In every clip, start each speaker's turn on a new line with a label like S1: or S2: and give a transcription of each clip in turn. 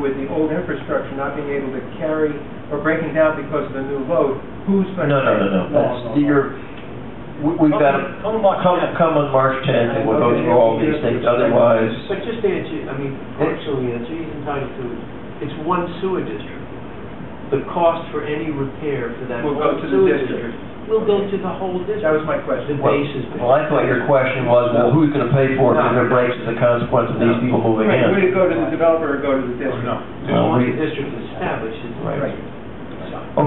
S1: with the old infrastructure not being able to carry or breaking down because of the new load, who's
S2: No,
S1: going to?
S2: no, no, no, that's, you're, we- we've got, to
S3: Come on, March
S2: come,
S3: 10th.
S2: come on March 10th, and we'll go through all these things, otherwise,
S3: But just to answer, I mean, partially answer, he's entitled to, it. it's one sewer district. The cost for any repair for that
S1: Will go
S3: whole
S1: to the
S3: sewer
S1: district.
S3: district. Will go to the whole
S1: That was
S3: district.
S1: my
S3: The
S1: question.
S3: base is.
S2: well, I thought your question was, well, who's gonna pay for it if it breaks as a consequence of these people moving
S1: Right, Would it
S2: in?
S1: go to the developer or go to the
S2: Oh,
S1: district? No.
S2: Well,
S3: Once
S2: we-
S3: the district is established, it's.
S2: Right.
S1: Right.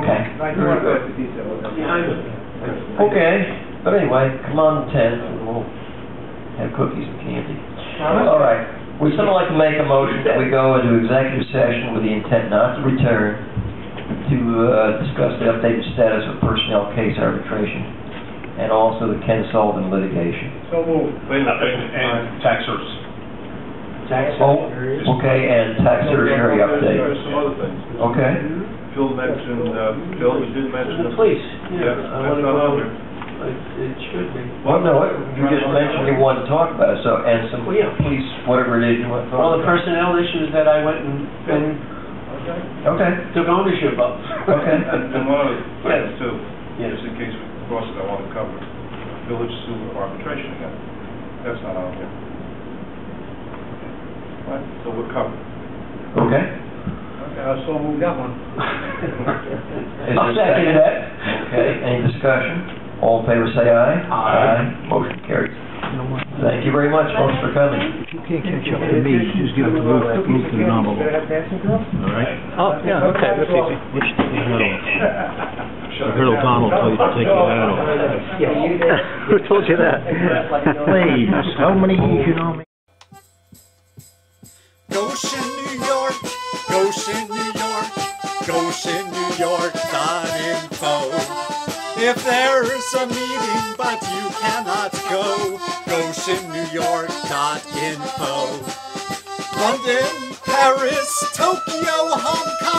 S2: Okay.
S1: I don't want to go into detail with that.
S3: Yeah, I'm-
S2: Okay, but anyway, come on the tenth, and we'll have cookies and candy. All right, would someone like to make a motion that we go into executive session with the intent not to return to uh, discuss the updated status of personnel case arbitration and also the Ken Sullivan litigation?
S1: So moved.
S4: And, and tax service.
S3: Tax
S2: Oh,
S3: area.
S2: okay, and tax surgery update,
S5: There's some other things.
S2: okay?
S5: Phil mentioned, uh, Phil, you did mention.
S3: The police, yeah.
S5: Yeah,
S3: I
S5: that's
S3: wanna
S5: not
S3: go,
S5: on there.
S3: it it should be.
S2: Well, no, you just mentioned you wanted to talk about it, so, and some
S3: Well, yeah.
S2: police, whatever it is you want to talk
S3: Well, the
S2: about.
S3: personnel issues that I went and, and
S2: Okay,
S3: took ownership of.
S2: okay.
S5: And and one other thing too,
S3: Yes.
S5: just in case we cross it, I want to cover, village sewer arbitration again. That's not on here. Right, so we're covered.
S2: Okay.
S1: I so moved that one.
S2: Is there a second?
S3: eh?
S2: Okay, any discussion? All in favor, say aye. Aye. Motion carries. Thank you very much, folks, for coming.
S6: You can't catch up to me, just give it to Lou, Lou can novel,
S1: Should I have dancing girls?
S6: all right?
S1: Oh, yeah, okay, that's easy.
S6: Wish to be heard of. I heard O'Donnell tell you to take your hat off. Who told you that? Please, how many years you know me?
S7: Goshen, New York, Goshen, New York, GoshenNewYork.info. If there's a meeting but you cannot go, GoshenNewYork.info. London, Paris, Tokyo, Hong Kong.